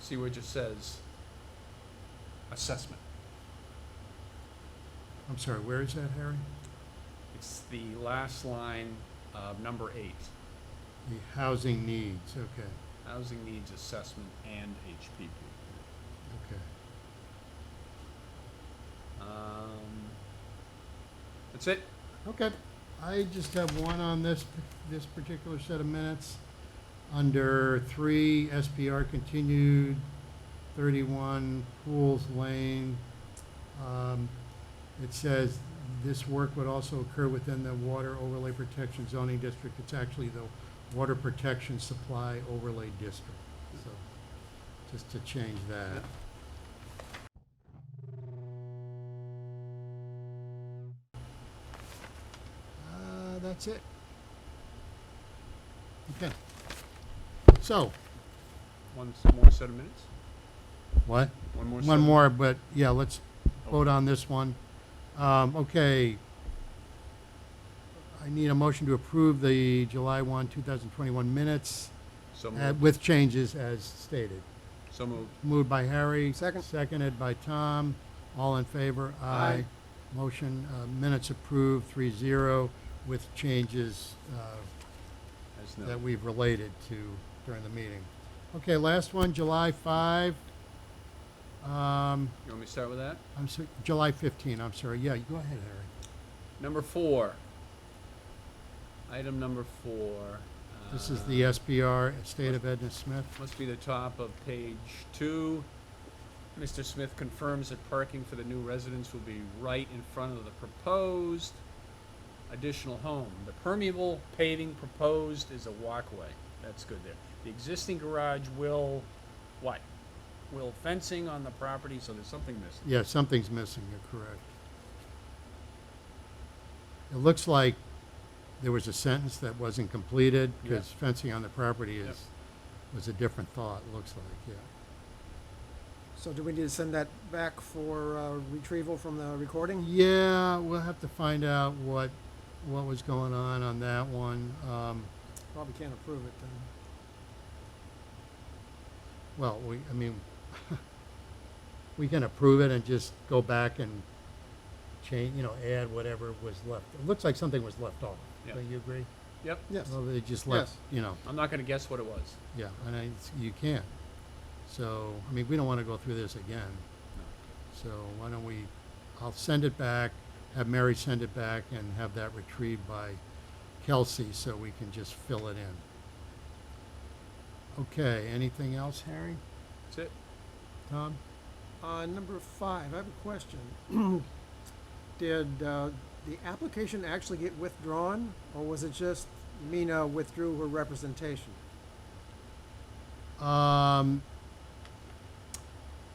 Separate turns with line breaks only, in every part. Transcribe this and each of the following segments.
see where it just says assessment.
I'm sorry, where is that, Harry?
It's the last line of number eight,
The housing needs, okay,
housing needs assessment and HPP.
okay.
Um, That's it.
Okay, I just have one on this, this particular set of minutes. Under three, SPR continued, thirty-one Pools Lane. Um, It says this work would also occur within the Water Overlay Protection Zoning District. It's actually the Water Protection Supply Overlay District, so, just to change that. Uh, that's it. Okay. So,
One s- more set of minutes?
what?
One more? set
One
of-
more, but yeah, let's vote on this one. Um, okay. I need a motion to approve the July one, two thousand twenty-one minutes
So
uh,
moved.
with changes as stated.
So moved.
Moved by Harry.
Second.
Seconded by Tom. All in favor?
Aye.
Motion, uh, minutes approved, three zero, with changes, uh,
As
that
noted.
we've related to during the meeting. Okay, last one, July 5. Um,
You want me to start with that?
I'm sorry, July 15, I'm sorry. Yeah, you go ahead, Harry.
Number four. Item number four.
This is
uh,
the SBR, State of Edna Smith.
Must be the top of page two. Mr. Smith confirms that parking for the new residents will be right in front of the proposed additional home. The permeable paving proposed is a walkway. That's good there. The existing garage will, what? Will fencing on the property, so there's something missing.
Yeah, something's missing, you're correct. It looks like there was a sentence that wasn't completed,
Yeah.
because fencing on the property
Yep.
is, was a different thought, looks like, yeah.
So do we need to send that back for uh, retrieval from the recording?
Yeah, we'll have to find out what, what was going on on that one. Um,
Probably can't approve it then.
Well, we, I mean, we can approve it and just go back and change, you know, add whatever was left. It looks like something was left off.
Yeah.
Don't you agree?
Yep,
Yes.
Well, they just left,
Yes.
you know,
I'm not gonna guess what it was.
yeah, and I, it's- you can't. So, I mean, we don't wanna go through this again, so why don't we, I'll send it back, have Mary send it back and have that retrieved by Kelsey so we can just fill it in. Okay, anything else, Harry?
That's it.
Tom?
Uh, number five, I have a question. Did, uh, the application actually get withdrawn, or was it just Mina withdrew her representation?
Um,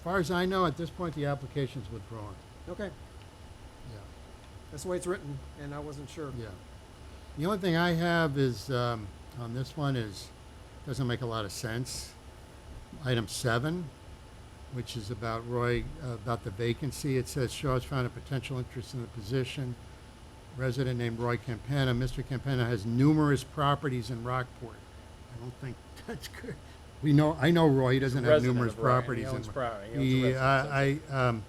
far as I know, at this point, the application's withdrawn.
Okay,
Yeah,
that's the way it's written, and I wasn't sure.
yeah. The only thing I have is, um, on this one is, doesn't make a lot of sense. Item seven, which is about Roy, uh, about the vacancy, it says Shaw's found a potential interest in the position. Resident named Roy Campana, Mr. Campana has numerous properties in Rockport. I don't think that's good. We know, I know Roy, he doesn't have
Resident
numerous
of Ryan, he
properties in.
owns
Ro-
property, he owns a
Yeah,
residence, that's
I, I, um,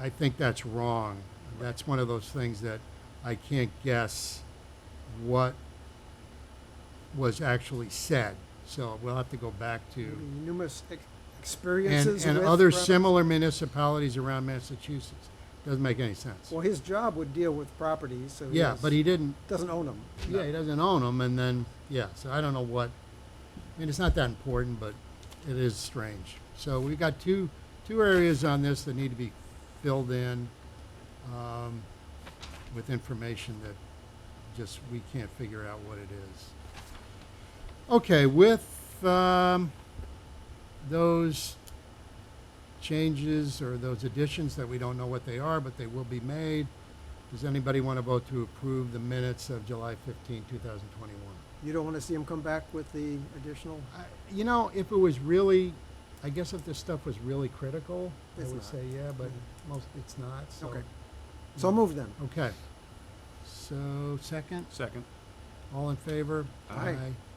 I, I think that's wrong. That's one of those things that I can't guess what was actually said. So we'll have to go back
Maybe
to,
Numerous ex-
and,
experiences
and
with
other
rep-
similar municipalities around Massachusetts. Doesn't make any sense.
Well, his job would deal with properties, so he
Yeah,
was-
but he didn't,
doesn't own them.
yeah, he doesn't own them and then, yeah, so I don't know what, I mean, it's not that important, but it is strange. So we've got two, two areas on this that need to be filled in, um, with information that just, we can't figure out what it is. Okay, with, um, those changes or those additions that we don't know what they are, but they will be made, does anybody want to vote to approve the minutes of July 15, 2021?
You don't wanna see him come back with the additional?
I- You know, if it was really, I guess if this stuff was really critical, I
It's
would
not. Mm-hmm.
say yeah, but most, it's not, so.
Okay. So move then.
Okay. So, second,
Second.
all in favor?
Aye.